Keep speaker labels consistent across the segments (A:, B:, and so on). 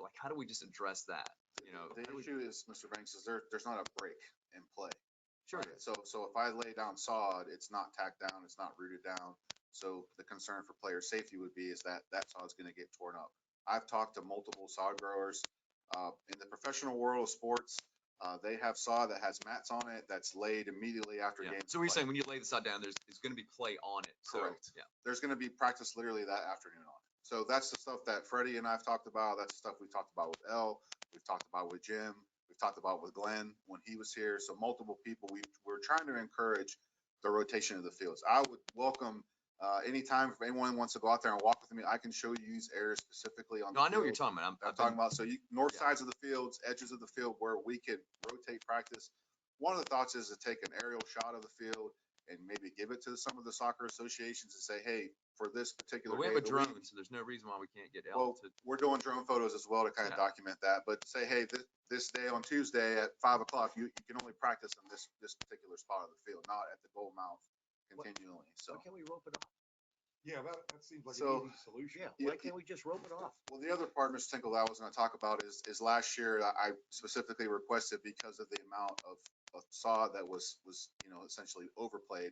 A: like, how do we just address that? You know,
B: The
A: how do we-
B: issue is, Mr. Banks, is there, there's not a break in play.
A: sure,
B: right? So, so if I lay down sod, it's not tacked down, it's not rooted down. So the concern for player safety would be is that that sod's gonna get torn up. I've talked to multiple sod growers, uh, in the professional world of sports, uh, they have sod that has mats on it that's laid immediately after
A: yeah.
B: games.
A: So what you're
B: play.
A: saying, when you lay the sod down, there's, there's gonna be clay on it. So,
B: Correct.
A: Yeah,
B: there's gonna be practice literally that afternoon on. it. So that's the stuff that Freddie and I've talked about. That's the stuff we talked about with L. We've talked about with Jim. We've talked about with Glenn when he was here. So multiple people, we, we're trying to encourage the rotation of the fields. I would welcome, uh, anytime if anyone wants to go out there and walk with me, I can show you these areas specifically on.
A: no, I know what you're
B: talking.
A: talking about. I'm,
B: I'm
A: I've been-
B: talking about, so you, north
A: Yeah.
B: sides of the fields, edges of the field where we could rotate practice. One of the thoughts is to take an aerial shot of the field and maybe give it to some of the soccer associations and say, hey, for this particular
A: But we
B: day
A: have a
B: of the week,
A: drone, so there's no reason why we can't get L
B: Well,
A: to,
B: We're doing drone photos as well to kind
A: Yeah.
B: of document that, but say, hey, this, this day on Tuesday at five o'clock, you, you can only practice on this, this particular spot of the field, not at the goal mouth
C: What-
B: continually, so.
C: Why can't we rope it off?
D: Yeah, that, that seems like
B: So-
D: an easy solution.
C: Yeah,
B: Yeah,
C: why
B: it-
C: can't we just rope it off?
B: Well, the other part, Mr. Tinkle, that I was gonna talk about is, is last year, I I specifically requested because of the amount of, of sod that was, was, you know, essentially overplayed,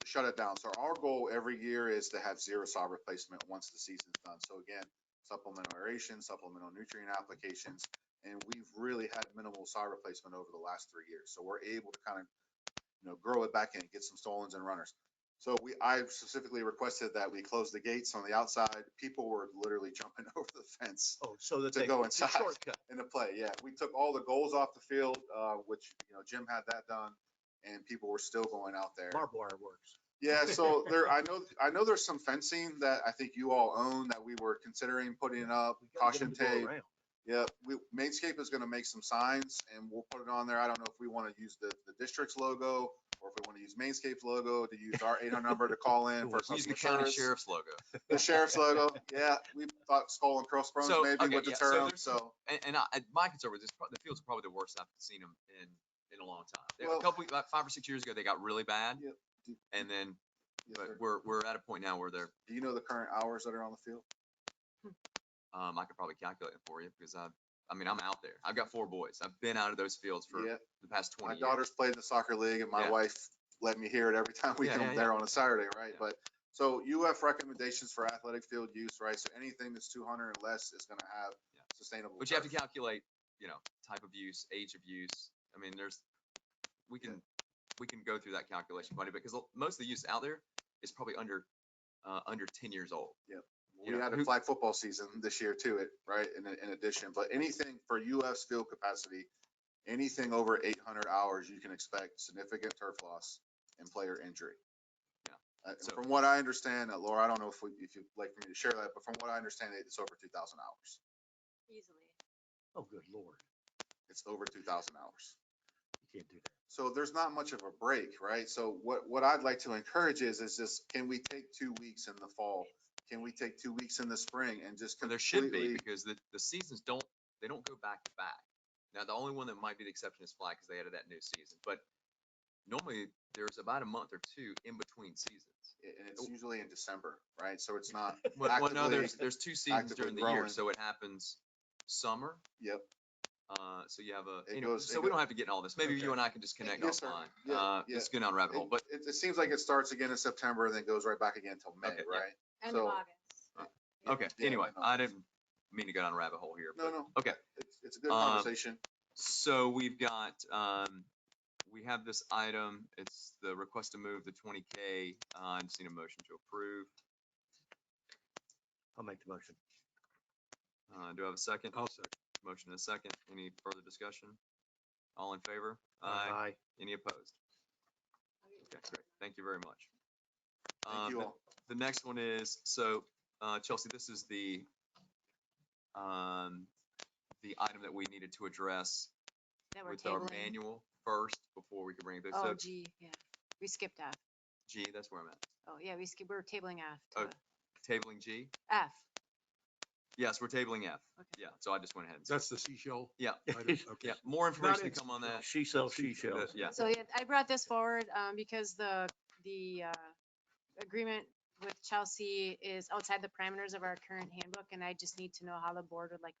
B: to shut it down. So our goal every year is to have zero sod replacement once the season's done. So again, supplemental aeration, supplemental nutrient applications, and we've really had minimal sod replacement over the last three years. So we're able to kind of, you know, grow it back in, get some stolons and runners. So we, I specifically requested that we close the gates on the outside. People were literally jumping over the fence
C: Oh, so that
B: To
C: they.
B: go
C: it's a
B: inside.
C: Shortcut.
B: in the play. Yeah, we took all the goals off the field, uh, which, you know, Jim had that done and people were still going out there.
C: Barbed wire works.
B: Yeah, so there, I know, I know there's some fencing that I think you all own that we were considering putting up,
C: We gotta get 'em
B: caution
C: to go
B: tape.
C: around.
B: Yeah, we, Mainscape is gonna make some signs and we'll put it on there. I don't know if we wanna use the, the district's logo or if we wanna use Mainscape's logo to use our eight hundred number to call in for
A: use the
B: customer
A: county
B: service.
A: sheriff's logo.
B: The sheriff's logo, yeah, we thought skull and crossbones
A: So, okay,
B: maybe would
A: yeah, so
B: deter them,
A: there's-
B: so.
A: And, and I, and my concern with this, pro- the fields are probably the worst I've seen them in, in a long time. They- A
B: Well-
A: couple, about five or six years ago, they got really bad.
B: Yep.
A: And then,
B: Yes,
A: but
B: sir.
A: we're, we're at a point now where they're,
B: Do you know the current hours that are on the field?
A: um, I could probably calculate it for you because I, I mean, I'm out there. I've got four boys. I've been out of those fields for
B: Yeah,
A: the past
B: my
A: twenty years.
B: daughter's played in the soccer league and my
A: Yeah.
B: wife let me hear it every time we
A: Yeah, yeah,
B: come
A: yeah.
B: there on a Saturday, right?
A: Yeah.
B: But, so UF recommendations for athletic field use, right? So anything that's two hundred or less is gonna have
A: Yeah.
B: sustainable.
A: But you have to
B: turf.
A: calculate, you know, type of use, age of use. I mean, there's, we
B: Yeah.
A: can, we can go through that calculation quite a bit because most of the use out there is probably under, uh, under ten years old. you
B: We
A: know,
B: had a
A: who-
B: flag football season this year too, it, right, in, in addition, but anything for UF's field capacity, anything over eight hundred hours, you can expect significant turf loss and player injury.
A: Yeah,
B: Uh, and
A: so-
B: From what I understand, uh, Laura, I don't know if we, if you'd like for me to share that, but from what I understand, it's over two thousand hours.
E: easily.
C: Oh, good lord,
B: It's over two thousand hours.
C: you can't do that.
B: So there's not much of a break, right? So what, what I'd like to encourage is, is just, can we take two weeks in the fall? Can we take two weeks in the spring and just
A: Well,
B: completely?
A: There should be, because the, the seasons don't, they don't go back to back. Now, the only one that might be the exception is flag, because they added that new season, but normally there's about a month or two in between seasons.
B: a- and
A: Oh.
B: it's usually in December, right? So it's not,
A: Well, well, no, there's,
B: Actively-
A: there's two seasons
B: actively
A: during the year,
B: growing.
A: so it happens summer.
B: Yep.
A: Uh, so you have a,
B: It
A: anyway,
B: goes- it
A: so we don't
B: go-
A: have to get in all this. Maybe
D: Okay.
A: you and I can just connect
B: Yes, sir.
A: offline.
B: Yeah,
A: Uh,
B: yeah.
A: it's going down a rabbit hole,
B: it,
A: but
B: it- it seems like it starts again in September and then goes right back again till May,
A: Okay, yeah.
B: right?
E: End of
B: So-
E: August.
A: Uh, okay,
B: yeah,
A: anyway,
B: no, no.
A: I didn't mean to go down a rabbit hole here.
B: No,
A: but-
B: no.
A: Okay.
B: It's, it's a good
A: Um,
B: conversation.
A: So we've got, um, we have this item, it's the request to move the twenty K, uh, I'm seeing a motion to approve.
C: I'll make the motion.
A: Uh, do I have a second?
D: I'll second.
A: Motion and a second, any further discussion? All in favor? Aye.
C: Aye.
A: Any opposed? Okay, great, thank you very much.
B: Thank
A: Um,
B: you all.
A: The next one is, so, uh, Chelsea, this is the, um, the item that we needed to address
E: That we're
A: with our
E: tabling.
A: manual first before we can bring this
E: Oh
A: up.
E: gee, yeah. We skipped F.
A: G, that's where I'm at.
E: Oh, yeah, we skipped, we're tabling F.
A: Oh,
E: to
A: Tabling G?
E: F.
A: Yes, we're tabling F.
E: Okay.
A: Yeah, so I just went ahead and,
D: That's the seashell?
A: Yeah.
D: item? Okay.
A: yeah, more information to
D: in-
A: come on that.
C: She sells, she
D: Seashell.
C: sells.
A: but Yeah,
E: So yeah, I brought this forward um, because the, the uh, agreement with Chelsea is outside the parameters of our current handbook, and I just need to know how the board would like me